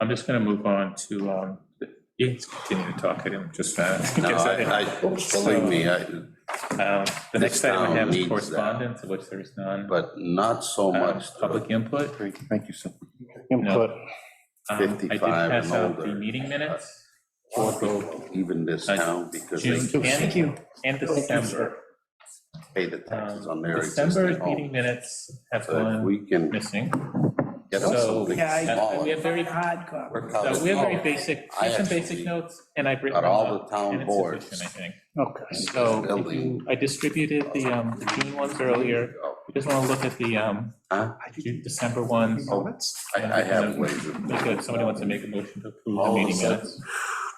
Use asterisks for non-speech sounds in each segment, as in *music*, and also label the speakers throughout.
Speaker 1: I'm just gonna move on to, um, you can continue to talk, I didn't just. finish.
Speaker 2: No, I, I, believe me, I,
Speaker 1: Um, The next
Speaker 2: This
Speaker 1: item
Speaker 2: town
Speaker 1: we have is
Speaker 2: needs that.
Speaker 1: correspondence, of which there is none.
Speaker 2: but not so
Speaker 1: Um,
Speaker 2: much.
Speaker 1: Public input.
Speaker 3: Great, thank you, sir.
Speaker 1: Input. Um, I did
Speaker 2: 55
Speaker 1: pass
Speaker 2: and
Speaker 1: out the
Speaker 2: older. Uh,
Speaker 1: meeting minutes,
Speaker 2: Even this
Speaker 1: I-
Speaker 2: town, because
Speaker 1: June
Speaker 2: they
Speaker 3: Thank
Speaker 1: and,
Speaker 3: you.
Speaker 1: and December.
Speaker 2: pay the taxes on
Speaker 1: Um,
Speaker 2: their
Speaker 1: December's
Speaker 2: existing
Speaker 1: meeting
Speaker 2: home.
Speaker 1: minutes have
Speaker 2: So if
Speaker 1: gone
Speaker 2: we can
Speaker 1: missing.
Speaker 2: get them
Speaker 1: So-
Speaker 2: something
Speaker 4: Yeah, I-
Speaker 1: Uh, We
Speaker 2: smaller.
Speaker 1: have very,
Speaker 4: Hard copy.
Speaker 2: we're covered.
Speaker 1: so we have very
Speaker 2: Oh,
Speaker 1: basic,
Speaker 2: I
Speaker 1: I have some basic
Speaker 2: actually
Speaker 1: notes, and I've written
Speaker 2: got
Speaker 1: them
Speaker 2: all
Speaker 1: up,
Speaker 2: the town
Speaker 1: and it's
Speaker 2: boards.
Speaker 1: sufficient, I think.
Speaker 3: Okay.
Speaker 1: So if
Speaker 2: Building.
Speaker 1: you- I distributed the, um, the June ones earlier,
Speaker 2: Oh,
Speaker 1: we just want to look at the, um,
Speaker 2: Huh?
Speaker 1: June- December ones.
Speaker 2: Oh. I, I
Speaker 1: Um,
Speaker 2: have ways of,
Speaker 1: Look at- Somebody wants to make a motion to approve the
Speaker 2: All of
Speaker 1: meeting
Speaker 2: a sudden.
Speaker 1: minutes.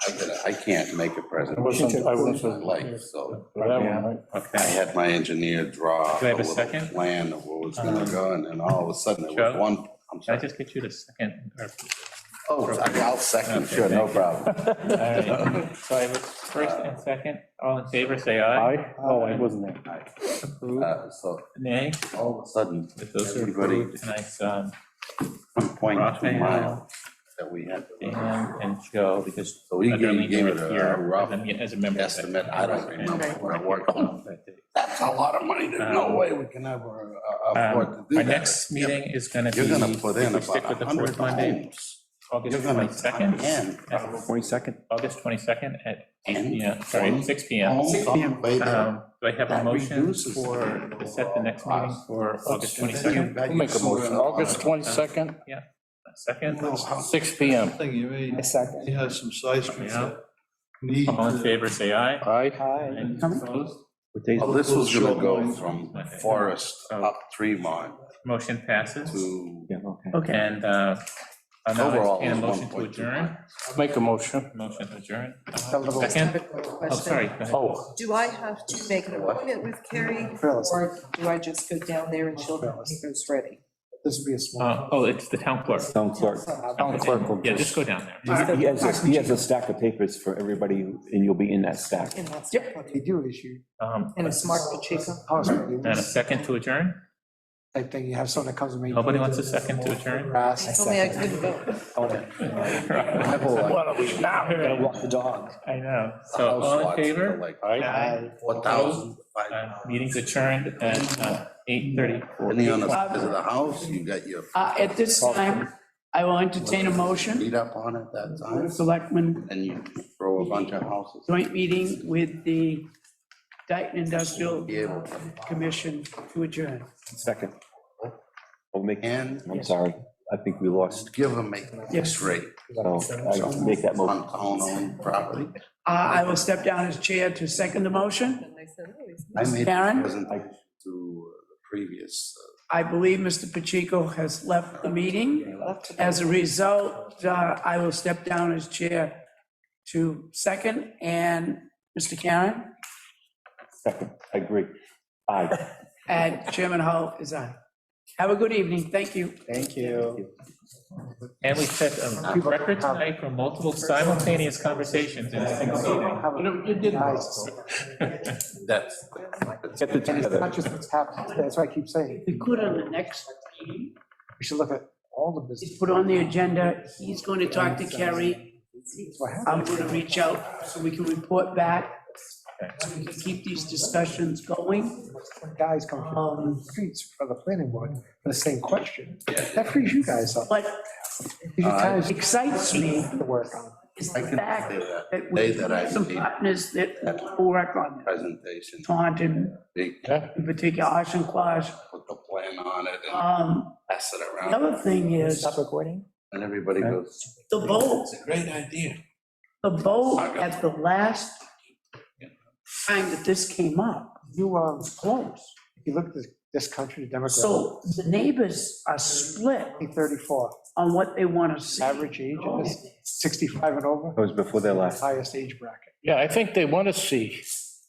Speaker 2: I gotta- I can't make a present.
Speaker 3: I wasn't- I wasn't-
Speaker 2: My life, so I
Speaker 1: Okay,
Speaker 2: had my engineer draw.
Speaker 1: Do I have a
Speaker 2: little
Speaker 1: second?
Speaker 2: Plan of what was gonna
Speaker 1: Um,
Speaker 2: go, and then all of a sudden, it was
Speaker 1: Joe?
Speaker 2: one,
Speaker 1: can I
Speaker 2: I'm sorry.
Speaker 1: just get you to second? or- *laughs*
Speaker 2: Oh, sorry, I'll second,
Speaker 1: Okay,
Speaker 2: sure, no
Speaker 1: thank you.
Speaker 2: problem.
Speaker 1: all right. So I was first and second, all in favor, say aye.
Speaker 3: I, oh, I wasn't there.
Speaker 1: Approved.
Speaker 2: Uh, So
Speaker 1: Nay,
Speaker 2: all of a sudden,
Speaker 1: if those are
Speaker 2: Everybody.
Speaker 1: approved, tonight's, um,
Speaker 2: one point two miles
Speaker 1: Raphael,
Speaker 2: that we had. to run.
Speaker 1: Dan, and Joe, because
Speaker 2: So he
Speaker 1: Darlene
Speaker 2: gave gave it
Speaker 1: was
Speaker 2: a
Speaker 1: here
Speaker 2: rough
Speaker 1: as a me- as a member. Um, of the-
Speaker 2: estimate, I don't remember what I worked on.
Speaker 1: Okay.
Speaker 2: That's a lot of money, there's no way we can ever uh, afford to
Speaker 1: Um,
Speaker 2: do that.
Speaker 1: Our next meeting is gonna be,
Speaker 2: You're gonna
Speaker 1: if
Speaker 2: put in
Speaker 1: we
Speaker 2: about
Speaker 1: stick with
Speaker 2: a
Speaker 1: the
Speaker 2: hundred
Speaker 1: fourth Monday,
Speaker 2: homes.
Speaker 1: August
Speaker 2: You're gonna,
Speaker 1: twenty-second.
Speaker 2: again,
Speaker 3: Twenty-second.
Speaker 1: August twenty-second at
Speaker 2: And
Speaker 1: eight PM, sorry,
Speaker 2: from-
Speaker 1: six PM.
Speaker 2: homes on Bay Area.
Speaker 1: Um, Do I have a
Speaker 2: That
Speaker 1: motion
Speaker 2: reduces
Speaker 1: for,
Speaker 2: the
Speaker 1: to set the next meeting
Speaker 2: cost.
Speaker 1: for August
Speaker 2: And then you-
Speaker 1: twenty-second?
Speaker 2: then you
Speaker 5: Make a
Speaker 2: throw
Speaker 5: motion,
Speaker 2: in a lot
Speaker 5: August
Speaker 2: of-
Speaker 5: 22nd,
Speaker 1: Second,
Speaker 2: No, how-
Speaker 5: 6 PM.
Speaker 6: Thing you mean,
Speaker 4: I second.
Speaker 6: you have some seismic
Speaker 1: Yeah.
Speaker 6: that need.
Speaker 1: all in
Speaker 6: to-
Speaker 1: favor, say aye.
Speaker 5: Aye.
Speaker 4: Hi.
Speaker 1: And opposed,
Speaker 2: Well, this was gonna go from
Speaker 1: Okay.
Speaker 2: Forest up Tremont
Speaker 1: motion passes.
Speaker 2: to
Speaker 4: Okay.
Speaker 1: And uh, I'll now
Speaker 2: overall.
Speaker 1: entertain a
Speaker 2: is
Speaker 1: motion to
Speaker 2: 1.2
Speaker 1: adjourn.
Speaker 5: Make a motion.
Speaker 1: Motion to adjourn.
Speaker 4: Tell them-
Speaker 1: Second, oh,
Speaker 7: Question.
Speaker 1: sorry. go ahead.
Speaker 5: Oh,
Speaker 7: Do I have to make an appointment with Carrie,
Speaker 4: Phyllis.
Speaker 7: or do I just go down there and she'll have papers ready?
Speaker 4: This would be a small.
Speaker 1: Uh, Oh, it's the town clerk.
Speaker 3: Town clerk.
Speaker 5: town clerk will
Speaker 1: Yeah,
Speaker 5: just,
Speaker 1: just go down there.
Speaker 3: He has, a- he has a stack of papers for everybody, and you'll be in that stack.
Speaker 7: And that's-
Speaker 4: They do issue.
Speaker 1: Um,
Speaker 7: And it's Mark Pacheco.
Speaker 4: Hospital.
Speaker 1: And a second to adjourn?
Speaker 4: Type thing, you have someone that comes and.
Speaker 1: Nobody wants a second to adjourn?
Speaker 4: Grass.
Speaker 7: I told me I couldn't vote.
Speaker 1: I
Speaker 5: what are we now?
Speaker 1: *laughs*
Speaker 4: Gotta walk the dog.
Speaker 1: know.
Speaker 2: the
Speaker 1: So
Speaker 2: house
Speaker 1: all in
Speaker 2: lots
Speaker 1: favor?
Speaker 2: for Like
Speaker 5: Aye.
Speaker 2: four thousand, five
Speaker 1: Uh,
Speaker 2: thousand.
Speaker 1: Meeting's adjourned at uh, eight thirty.
Speaker 2: Depending on the size of the house, you got your
Speaker 8: Uh, At this time, I will entertain a motion,
Speaker 2: feet up on it that
Speaker 8: Board
Speaker 2: time,
Speaker 8: of Selectmen
Speaker 2: and you throw a bunch of houses.
Speaker 8: joint meeting with the Dayton Industrial
Speaker 2: Be able to.
Speaker 8: Commission to adjourn.
Speaker 3: Second. I'll make,
Speaker 2: And
Speaker 3: I'm sorry, I think we lost,
Speaker 2: give them a fixed rate
Speaker 3: so I'll make that motion.
Speaker 2: on town-owned property.
Speaker 8: Uh, I will step down as chair to second the motion.
Speaker 7: And they said, oh, he's.
Speaker 2: I made a
Speaker 8: Karen?
Speaker 2: presentation to the previous uh,
Speaker 8: I believe Mr. Pacheco has left the meeting.
Speaker 7: left today."
Speaker 8: As a result, uh, I will step down as chair to second, and Mr. Karen,
Speaker 3: Second, I agree. Aye.
Speaker 8: and Chairman Hull is on. Have a good evening, thank you.
Speaker 4: Thank you.
Speaker 1: And we set a record tonight for multiple simultaneous conversations in a single meeting.
Speaker 8: You did
Speaker 4: Nice.
Speaker 2: that's
Speaker 3: Get the
Speaker 4: And it's
Speaker 3: together.
Speaker 4: not just what's happened, that's what I keep saying,
Speaker 8: We could on the next meeting,
Speaker 4: we should look at all the business.
Speaker 8: he's put on the agenda, he's going to talk to Kerry.
Speaker 4: What happened?
Speaker 8: I'm going to reach out so we can report back, so we can keep these discussions going.
Speaker 4: Guys come
Speaker 8: Um,
Speaker 4: from the streets for the planning board for the same question. That frees you guys up.
Speaker 8: What
Speaker 4: You kind of
Speaker 8: excites me
Speaker 4: to work on.
Speaker 8: is
Speaker 2: I
Speaker 8: the
Speaker 2: can
Speaker 8: fact
Speaker 2: say that
Speaker 8: that
Speaker 2: uh, Day
Speaker 8: we
Speaker 2: that I
Speaker 8: have some
Speaker 2: leave.
Speaker 8: partners that will work on it.
Speaker 2: presentation.
Speaker 8: Taunton,
Speaker 2: They
Speaker 8: in particular, Oshkosh.
Speaker 2: put the plan on it and
Speaker 8: Um,
Speaker 2: pass it
Speaker 8: the
Speaker 2: around,
Speaker 8: other thing is,
Speaker 4: recording?
Speaker 2: and everybody goes,
Speaker 8: the vote,
Speaker 2: it's a great idea.
Speaker 8: the vote at the last time that this came up,
Speaker 4: You, um,
Speaker 8: was close.
Speaker 4: if you look at this- this country demographic,
Speaker 8: So the neighbors are split
Speaker 4: 34,
Speaker 8: on what they want to see.
Speaker 4: average age is 65 and over,
Speaker 3: That was before their last.
Speaker 4: highest age bracket.
Speaker 5: Yeah, I think they want to see